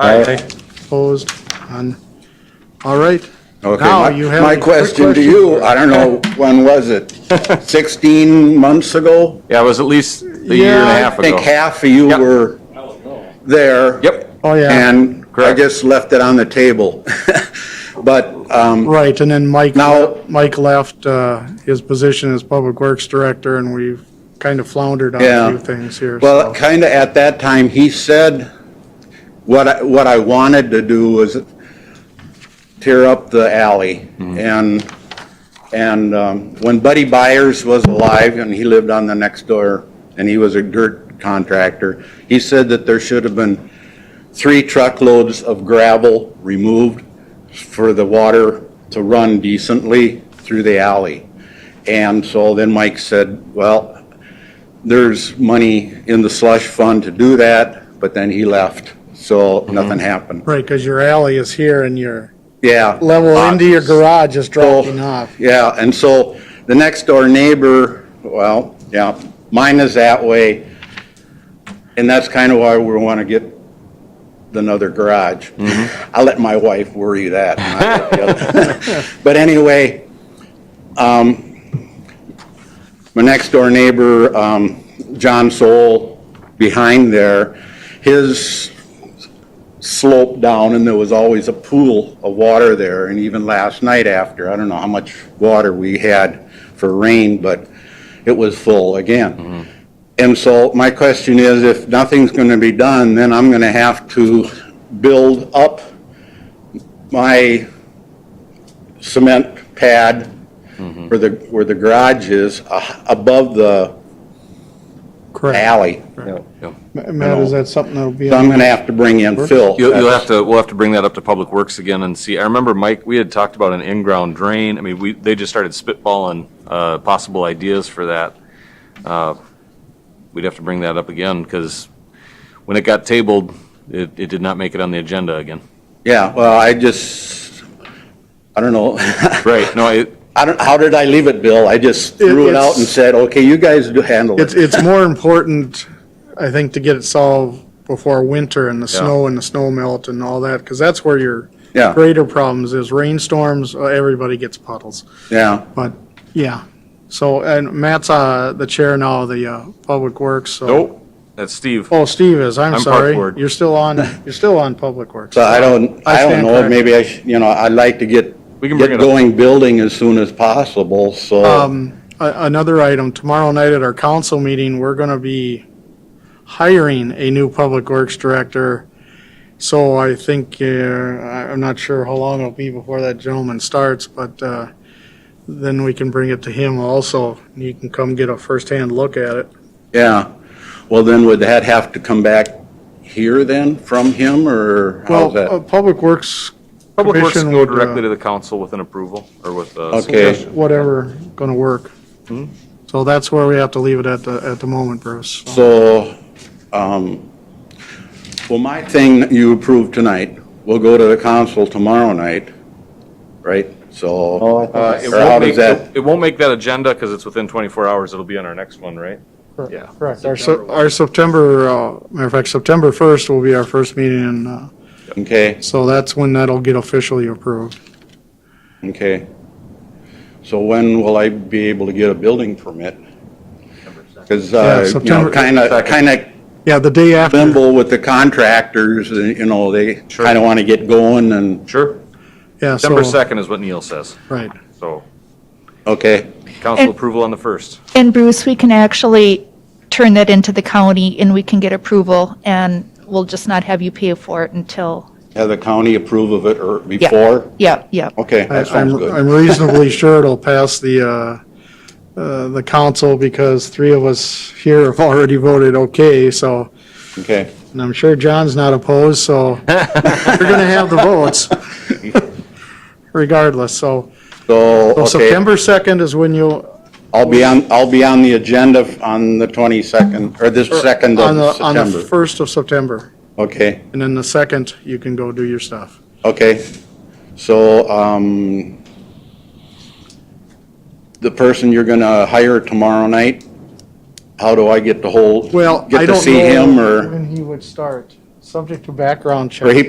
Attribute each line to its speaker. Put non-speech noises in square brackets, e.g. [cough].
Speaker 1: Aye.
Speaker 2: Opposed? None. All right.
Speaker 3: Okay,
Speaker 2: Now
Speaker 3: my-
Speaker 2: you have a
Speaker 3: my
Speaker 2: quick
Speaker 3: question to
Speaker 2: question
Speaker 3: you,
Speaker 2: for-
Speaker 3: I don't know, when was it? 16 months ago?
Speaker 1: Yeah, it was at least a year and a
Speaker 2: Yeah,
Speaker 1: half
Speaker 3: I think
Speaker 1: ago.
Speaker 3: half of you
Speaker 1: Yep.
Speaker 3: were there.
Speaker 1: Yep,
Speaker 2: Oh, yeah.
Speaker 3: And I
Speaker 1: Correct.
Speaker 3: just left it on the table. [laughs] But um,
Speaker 2: Right, and then Mike,
Speaker 3: Now-
Speaker 2: Mike left uh, his position as Public Works Director, and we've kind of floundered on
Speaker 3: Yeah.
Speaker 2: a few things here.
Speaker 3: Well,
Speaker 2: so-
Speaker 3: kind of at that time, he said, what I, what I wanted to do was tear up the alley. And, and um, when Buddy Byers was alive, and he lived on the next door, and he was a dirt contractor, he said that there should have been three truckloads of gravel removed for the water to run decently through the alley. And so then Mike said, well, there's money in the slush fund to do that, but then he left, so nothing happened.
Speaker 2: Right, because your alley is here and your
Speaker 3: Yeah.
Speaker 2: level into your garage is
Speaker 3: So-
Speaker 2: dropping off.
Speaker 3: Yeah, and so the next door neighbor, well, yeah, mine is that way. And that's kind of why we want to get another garage. I let my wife worry that. [laughs] not the other. [laughs] But anyway, um, my next door neighbor, um, John Soul, behind there, his sloped down and there was always a pool of water there. And even last night after, I don't know how much water we had for rain, but it was full again. And so my question is, if nothing's going to be done, then I'm going to have to build up my cement pad where the, where the garage is, uh, above the
Speaker 2: Correct.
Speaker 3: alley.
Speaker 2: Ma- Matt, is that something that'll be,
Speaker 3: So I'm gonna have to bring in fill.
Speaker 1: you'll, you'll have to, we'll have to bring that up to Public Works again and see. I remember Mike, we had talked about an in-ground drain. I mean, we, they just started spitballing, uh, possible ideas for that. Uh, We'd have to bring that up again because when it got tabled, it, it did not make it on the agenda again.
Speaker 3: Yeah, well, I just, I don't know. [laughs]
Speaker 1: Right, no, it,
Speaker 3: I don't, how did I leave it, Bill? I just threw it out and
Speaker 2: it's-
Speaker 3: said, okay, you guys do handle
Speaker 2: it's,
Speaker 3: it.
Speaker 2: it's more important, I think, to get it solved before winter and the
Speaker 1: Yeah.
Speaker 2: snow and the snow melt and all that, because that's where your
Speaker 3: Yeah,
Speaker 2: greater problems is rainstorms, uh, everybody gets puddles.
Speaker 3: yeah,
Speaker 2: But, yeah, so, and Matt's uh, the chair now of the uh, Public Works, so.
Speaker 1: nope, that's Steve.
Speaker 2: Oh, Steve is, I'm
Speaker 1: Park
Speaker 2: sorry.
Speaker 1: Board.
Speaker 2: You're still on, you're still on Public Works.
Speaker 3: so I don't,
Speaker 2: I
Speaker 3: I don't
Speaker 2: stand
Speaker 3: know,
Speaker 2: corrected.
Speaker 3: maybe I, should- you know, I'd like to get,
Speaker 1: We can bring
Speaker 3: get
Speaker 1: it up.
Speaker 3: going building as soon as possible, so,
Speaker 2: Um, a- Another item, tomorrow night at our council meeting, we're going to be hiring a new Public Works Director. So I think, uh, I- I'm not sure how long it'll be before that gentleman starts, but uh, then we can bring it to him also. and He can come get a firsthand look at it.
Speaker 3: yeah. Well, then would that have to come back here then from him, or how's
Speaker 2: Well, uh,
Speaker 3: that?
Speaker 2: Public Works,
Speaker 1: Public Works
Speaker 2: Commission
Speaker 1: can go
Speaker 2: would, uh,
Speaker 1: directly to the council with an approval or with a
Speaker 3: Okay.
Speaker 1: suggestion.
Speaker 2: whatever, going to work. So that's where we have to leave it at the, at the moment, Bruce.
Speaker 3: Hmm? So, um, well, my thing that you approved tonight will go to the council tomorrow night, right?
Speaker 2: Oh,
Speaker 3: So,
Speaker 1: Uh, It
Speaker 3: Or how
Speaker 1: won't
Speaker 3: does
Speaker 1: make,
Speaker 3: that-
Speaker 1: it won't make that agenda because it's within 24 hours. It'll be on our next one, right? Yeah.
Speaker 2: Correct. Our, Sep- our September, uh, matter of fact, September 1st will be our first meeting, and uh,
Speaker 3: okay,
Speaker 2: so that's when that'll get officially approved.
Speaker 3: okay. So when will I be able to get a building permit? Because, uh,
Speaker 2: Yeah,
Speaker 3: you know,
Speaker 2: September-
Speaker 3: kind of, kind of
Speaker 2: Yeah, the day after,
Speaker 3: limbo with the contractors, and, you know, they
Speaker 1: Sure.
Speaker 3: kind of want to get going and,
Speaker 1: Sure.
Speaker 2: yeah,
Speaker 1: December
Speaker 2: so,
Speaker 1: 2nd is what Neil says.
Speaker 2: right.
Speaker 1: So
Speaker 3: okay,
Speaker 1: council
Speaker 4: And-
Speaker 1: approval on the 1st.
Speaker 4: And Bruce, we can actually turn that into the county and we can get approval and we'll just not have you pay for it until,
Speaker 3: have the county approve of it or before?
Speaker 4: yeah, yeah.
Speaker 3: Okay,
Speaker 2: I-
Speaker 3: that sounds
Speaker 2: I'm
Speaker 3: good.
Speaker 2: I'm reasonably sure it'll pass the, uh, uh, the council, because three of us here have already voted okay, so,
Speaker 3: Okay,
Speaker 2: and I'm sure John's not opposed, so
Speaker 3: [laughs]
Speaker 2: we're going to have the votes regardless, so.
Speaker 3: so,
Speaker 2: So
Speaker 3: okay.
Speaker 2: September 2nd is when you'll,
Speaker 3: I'll be on, I'll be on the agenda f- on the 22nd, or this 2nd
Speaker 2: on
Speaker 3: of
Speaker 2: the, on the
Speaker 3: September.
Speaker 2: 1st of September.
Speaker 3: Okay,
Speaker 2: And then the second, you can go do your stuff.
Speaker 3: okay. So, um, the person you're gonna hire tomorrow night, how do I get to hold?
Speaker 2: Well, I
Speaker 3: Get to
Speaker 2: don't
Speaker 3: see him,
Speaker 2: know
Speaker 3: or,
Speaker 2: when he would start, subject to background check.
Speaker 3: or he